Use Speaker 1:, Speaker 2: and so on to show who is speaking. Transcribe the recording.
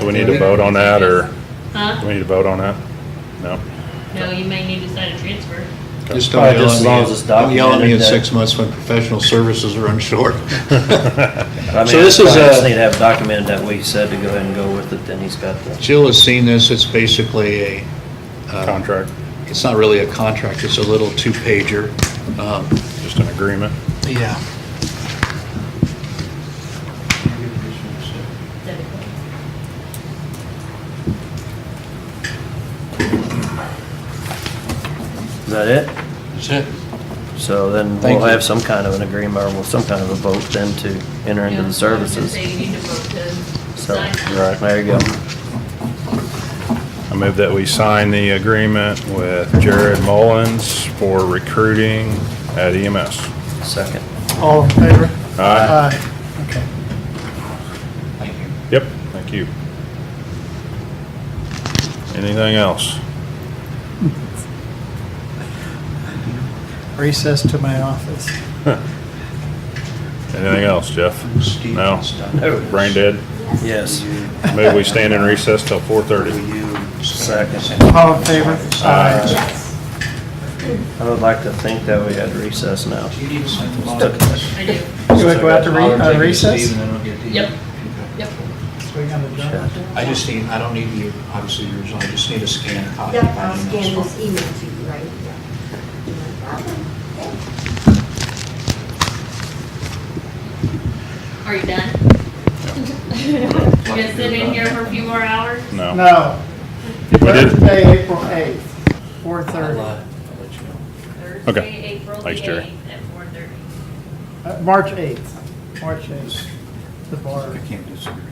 Speaker 1: Do we need to vote on that, or do
Speaker 2: Huh?
Speaker 1: we need to vote on that? No?
Speaker 2: No, you may need to sign a transfer.
Speaker 3: Just
Speaker 1: Okay.
Speaker 3: don't
Speaker 4: Probably
Speaker 3: yell
Speaker 4: just
Speaker 3: at
Speaker 4: as
Speaker 3: me.
Speaker 4: long
Speaker 3: at-
Speaker 4: as it's
Speaker 3: Don't yell at me in
Speaker 4: documented that-
Speaker 3: six months when professional services run short.
Speaker 4: I mean,
Speaker 3: So this is uh,
Speaker 4: I just
Speaker 3: a-
Speaker 4: need to have documented that we said to go ahead and go with it, then he's got the,
Speaker 3: Jill has seen this, it's basically a. uh,
Speaker 1: Contract,
Speaker 3: It's not really a contract, it's a little two-pager. Um,
Speaker 1: just an agreement?
Speaker 3: Yeah.
Speaker 4: is that it?
Speaker 3: That's it.
Speaker 4: So then
Speaker 3: Thank
Speaker 4: we'll
Speaker 3: you.
Speaker 4: have some kind of an agreement, or we'll some kind of a vote then to enter into
Speaker 2: Yeah, I
Speaker 4: the
Speaker 2: was gonna
Speaker 4: services.
Speaker 2: say you need to vote to
Speaker 4: So,
Speaker 2: sign.
Speaker 1: Right.
Speaker 4: there you go.
Speaker 1: I move that we sign the agreement with Jared Mullins for recruiting at E EMS.
Speaker 4: Second.
Speaker 5: All in favor?
Speaker 1: Aye.
Speaker 5: Aye. Okay.
Speaker 1: Yep, thank you. Anything else?
Speaker 5: Recess to my office.
Speaker 1: Anything else, Jeff? No?
Speaker 5: Oh,
Speaker 1: Brain dead?
Speaker 4: Yes.
Speaker 1: Move we stand in recess till 4:30.
Speaker 4: Second.
Speaker 5: All in favor?
Speaker 1: Aye.
Speaker 4: I would like to think that we had recess now.
Speaker 2: I do.
Speaker 5: You want to go out to re- uh, recess?
Speaker 2: Yep. Yep.
Speaker 5: We're gonna adjourn.
Speaker 3: I just need, I don't need you, obviously, yours, I just need a scan copy.
Speaker 6: Yep, I'll scan this e- email to you right here.
Speaker 2: Are you done? You gonna sit in here for a few more hours?
Speaker 1: No.
Speaker 5: No.
Speaker 1: We did.
Speaker 5: Thursday, April 8th, 4:30.
Speaker 3: uh,
Speaker 2: Thursday, April the
Speaker 1: Thanks, Jerry.
Speaker 2: 8th at 4:30.
Speaker 5: Uh, March 8th, March 8th, the bar.
Speaker 3: can't disagree.